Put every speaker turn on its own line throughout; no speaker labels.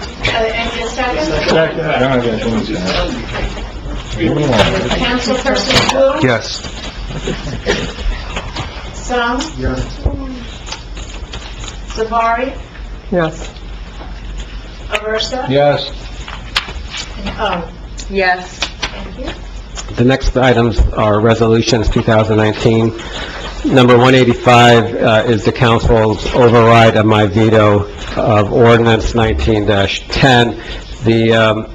and a second?
Second. I don't have anything to say. Give me one.
Councilperson Wu,
Yes.
Song,
Yes.
Savari,
Yes.
Aversa,
Yes.
and O.
Yes.
Thank you.
The next items are resolutions 2019. Number 185 uh, is the council's override of my veto of ordinance 19-10. The, um,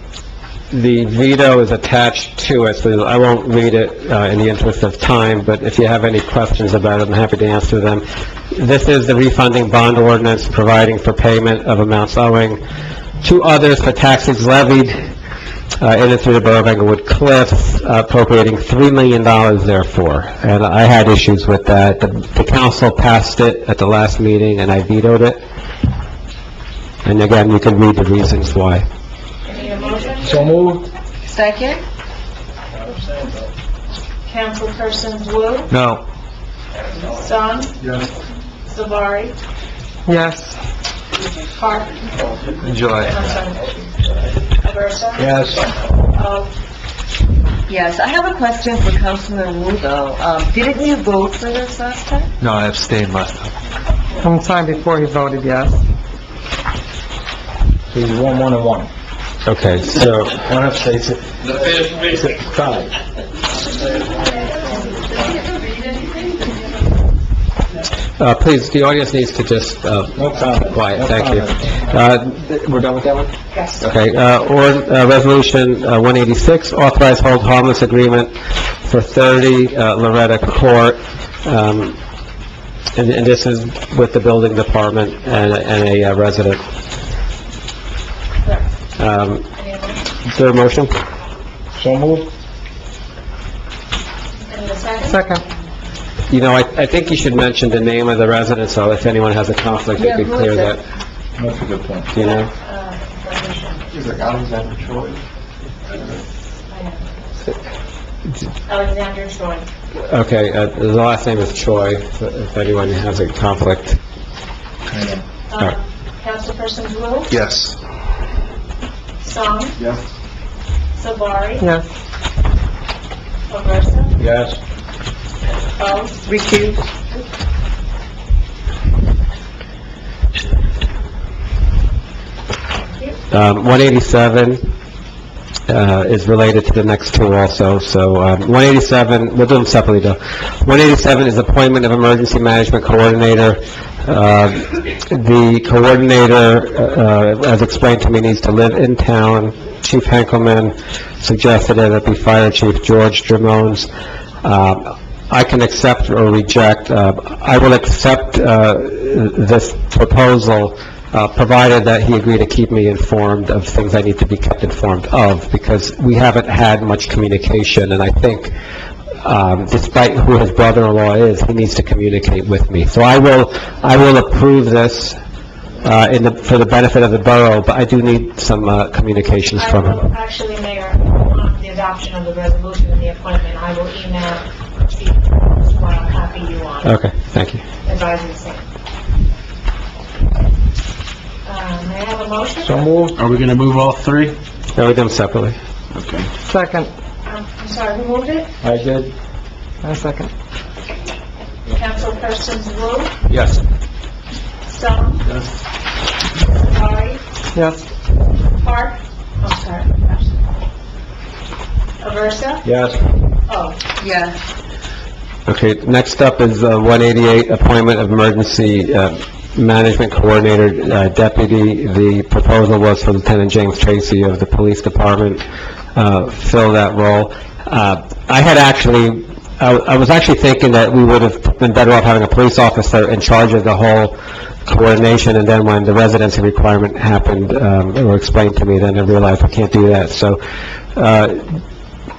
the veto is attached to it, so I won't read it uh, in the interest of time, but if you have any questions about it, I'm happy to answer them. This is the refunding bond ordinance providing for payment of amounts owing to others for taxes levied uh, in and through the Borough of Englewood Cliffs, appropriating $3 million therefore. And I had issues with that. The- The council passed it at the last meeting, and I vetoed it. And again, you can read the reasons why.
Any motion?
So moved?
Second?
Councilperson Wu,
No.
Song,
Yes.
Savari,
Yes.
Park,
Enjoy.
I'm sorry, Aversa,
Yes.
O.
Yes, I have a question for Councilman Wu, though. Um, didn't you vote for this last time?
No, I abstained last time.
From the time before he voted yes.
He's one, one, and one.
Okay, so,
One abstains. The fifth reason. Five.
uh, please, the audience needs to just, uh,
No comment.
quiet,
No
thank you.
comment.
Uh, We're done with that one?
Yes.
Okay, uh, or, uh, Resolution uh, 186, authorize hold harmless agreement for 30 uh, Loretta Court. Um, And and this is with the building department and and a uh, resident. Um,
Any motion?
Is there a motion?
So moved?
And a second?
Second.
You know, I I think you should mention the name of the resident, so if anyone has a conflict, you
Yeah,
could
who
clear
is it?
that,
That's a good point.
you know?
Uh,
He's like Alexander Troy.
Alexander Troy.
Okay, uh, the last name is Choi, if- if anyone has a conflict.
Um, Councilperson Wu,
Yes.
Song,
Yes.
Savari,
Yes.
Aversa,
Yes.
O.
Recuse.
Um, 187 uh, is related to the next two also, so um, 187, we'll do them separately though. 187 is appointment of emergency management coordinator. Uh, The coordinator, uh, as explained to me, needs to live in town. Chief Henkelman suggested that it be Fire Chief George Drimones. Um, I can accept or reject. Uh, I will accept uh, this proposal, uh, provided that he agreed to keep me informed of things I need to be kept informed of, because we haven't had much communication, and I think, um, despite who his brother-in-law is, he needs to communicate with me. So I will, I will approve this uh, in the, for the benefit of the borough, but I do need some uh, communications
I
from him.
will, actually, Mayor, on the adoption of the resolution and the appointment, I will email Chief George while I copy you
Uh.
on
Okay, thank you.
advising the same. Uh, May I have a motion?
So moved?
Are we gonna move all three?
No, we do them separately.
Okay.
Second.
Um, I'm sorry, who moved it?
I did.
I second.
Councilpersons Wu,
Yes.
Song,
Yes.
Savari,
Yes.
Park, I'm sorry, Aversa, Oh.
Yes.
O.
Yes.
Okay, next up is uh, 188, appointment of emergency uh, management coordinator uh, deputy. The proposal was for Lieutenant James Tracy of the Police Department, uh, fill that role. Uh, I had actually, I I was actually thinking that we would have been better off having a police officer in charge of the whole coordination, and then when the residency requirement happened, um, or explained to me, then I realized I can't do that. So uh,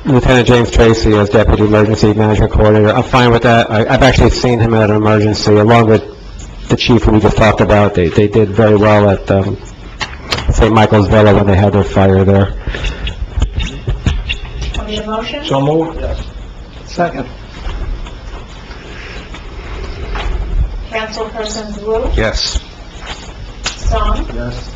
Lieutenant James Tracy as Deputy Emergency Management Coordinator. I'm fine with that. I- I've actually seen him at an emergency, along with the chief who we just talked about. They they did very well at um, St. Michael's Villa when they had their fire there.
I need a motion?
So moved? Yes.
Second.
Councilpersons Wu,
Yes.
Song,
Yes.